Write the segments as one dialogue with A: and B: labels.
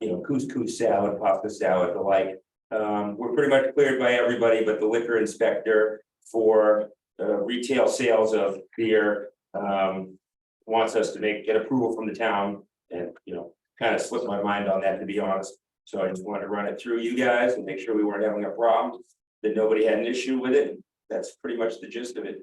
A: you know, couscous salad, pasta salad, the like. Um, we're pretty much cleared by everybody but the liquor inspector for uh retail sales of beer. Um, wants us to make, get approval from the town and, you know, kind of slipped my mind on that, to be honest. So I just wanted to run it through you guys and make sure we weren't having a problem, that nobody had an issue with it. That's pretty much the gist of it.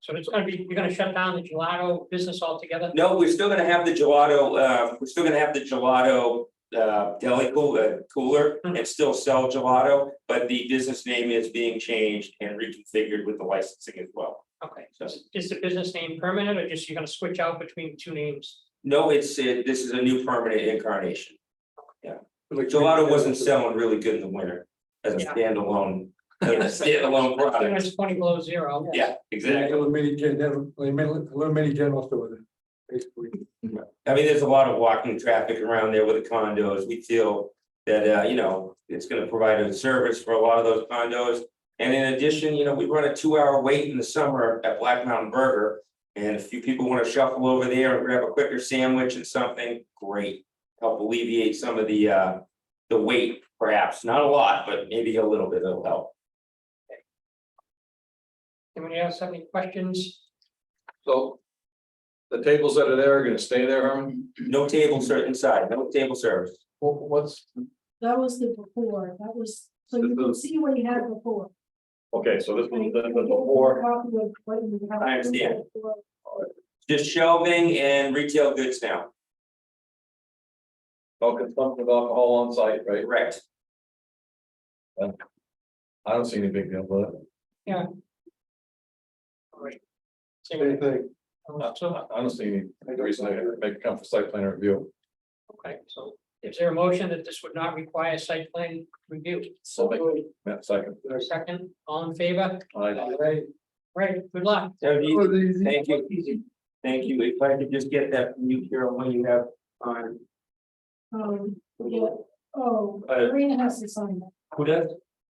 B: So it's gonna be, you're gonna shut down the gelato business altogether?
A: No, we're still gonna have the gelato, uh, we're still gonna have the gelato, uh, deli cool- uh, cooler and still sell gelato. But the business name is being changed and reconfigured with the licensing as well.
B: Okay, so is- is the business name permanent or just you're gonna switch out between two names?
A: No, it's, uh, this is a new permanent incarnation. Gelato wasn't selling really good in the winter as a
B: Yeah.
A: standalone, as a standalone product.
B: It's twenty below zero.
A: Uh, Yeah, exactly.
C: Eliminated, gen- eliminated, eliminated general store there, basically.
A: I mean, there's a lot of walking traffic around there with the condos. We feel that, uh, you know, it's gonna provide a service for a lot of those condos. And in addition, you know, we run a two-hour wait in the summer at Black Mountain Burger. And if you people wanna shuffle over there and grab a quicker sandwich and something, great. Help alleviate some of the, uh, the wait perhaps, not a lot, but maybe a little bit, it'll help.
B: Anybody else have any questions?
D: So. The tables that are there are gonna stay there, Herman?
A: No table ser- inside, no table service.
D: What, what's,
E: That was the before, that was, so you can see what you had before.
D: okay, so this was the, the before,
E: Copy of what you had
A: I understand.
E: before.
A: Just shelving and retail goods now,
D: no consumption of alcohol on site, right?
A: correct?
D: I don't see any big deal, but
B: All right.
C: Same thing.
B: So,
D: I don't see any reason to make it come for site plan review.
B: okay, so is there a motion that this would not require site plan review?
D: So make that second.
B: Or second, all in favor?
D: I,
B: Right, good luck.
A: So do you-
C: Oh, these-
A: Thank you. Thank you. If I could just get that from you, Carol, when you have on,
E: Um, yeah, oh,
D: Uh,
E: Karina has to sign that.
A: who does?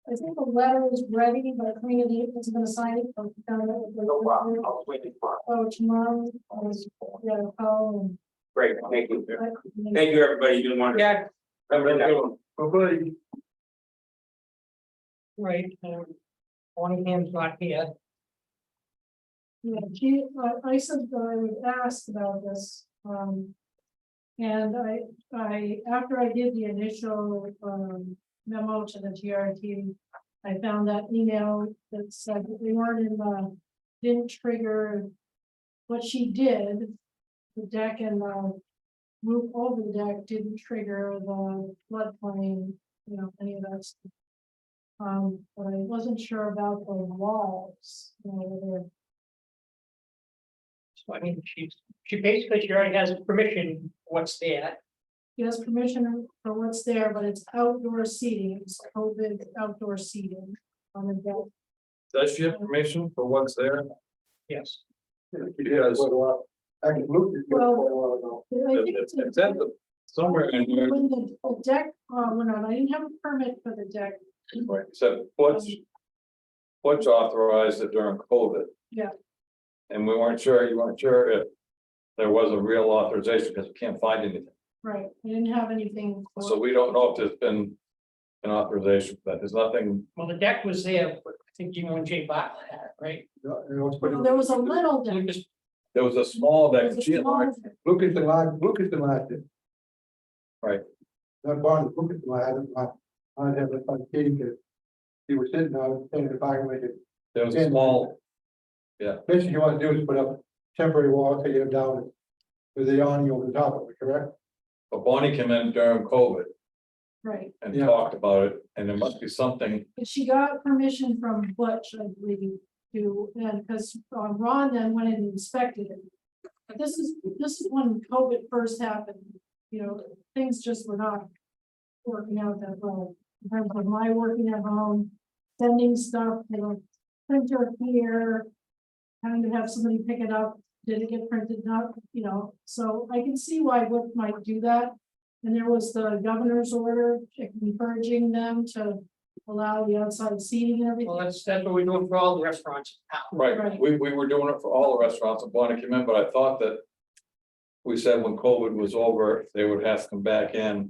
E: I think the letter is ready, but Karina is gonna sign it. but she's gonna-
A: No problem. I was waiting for it.
E: Oh, tomorrow, oh, yeah, oh,
A: Great, thank you.
E: and. I-
A: Thank you, everybody. You've been wonderful.
B: Yeah,
A: Have a good night.
C: Bye-bye.
B: right. um, Monahans not here.
E: Yeah, she, I, I said that I would ask about this, um. And I, I, after I did the initial, um, memo to the TRT. I found that email that said that we weren't in the, didn't trigger. What she did, the deck and the roof over the deck didn't trigger the floodplain, you know, any of that. stuff. Um, but I wasn't sure about the walls, you know, whether
B: So I mean, she's, she basically, she already has permission, what's there.
E: He has permission for what's there, but it's outdoor seating, it's COVID outdoor seating on the deck.
D: does she have permission for what's there?
B: Yes.
D: Because
C: I can look at you for a while ago.
E: But I
D: if,
E: think
D: if
E: it's
D: if that's
E: a-
D: the- somewhere in here,
E: When the the deck, uh, went on, I didn't have a permit for the deck,
D: right, said what's. What's authorized it during COVID?
E: Yeah.
D: And we weren't sure, you weren't sure if there was a real authorization, because we can't find anything.
E: right, I didn't have anything. for-
D: So we don't know if there's been an authorization, but there's nothing,
B: Well, the deck was there, but I think you and Jay Bartlett had it, right?
C: Yeah, you know, it's pretty-
E: Well, There was a little deck.
B: Lucas,
D: there was a small
E: there
D: deck,
E: was a
D: she had
E: small
D: like,
E: deck.
C: Look at the line, look at the line there.
D: Right.
C: That barn, look at the line, I, I had a fun kid that. He was sitting on, saying if I waited.
D: there was a small,
C: Basically, you want to do is put up temporary wall, take it down. With the awning over the top of it, correct?
D: but Bonnie came in during COVID
E: Right,
D: and
C: Yeah.
D: talked about it, and there must be something.
E: but she got permission from Butch, I believe, to, and, because Ron then went and inspected it. But this is, this is when COVID first happened, you know, things just were not working out that well. In terms of my working at home, sending stuff, you know, printer here. Having to have somebody pick it up, did it get printed, not, you know, so I can see why Wood might do that. And there was the governor's order encouraging them to allow the outside seating and
B: well,
E: everything.
B: that's, that's what we're doing for all the restaurants in town.
D: Right,
E: Right.
D: we, we were doing it for all the restaurants, and Bonnie came in, but I thought that. We said when COVID was over, they would have to come back in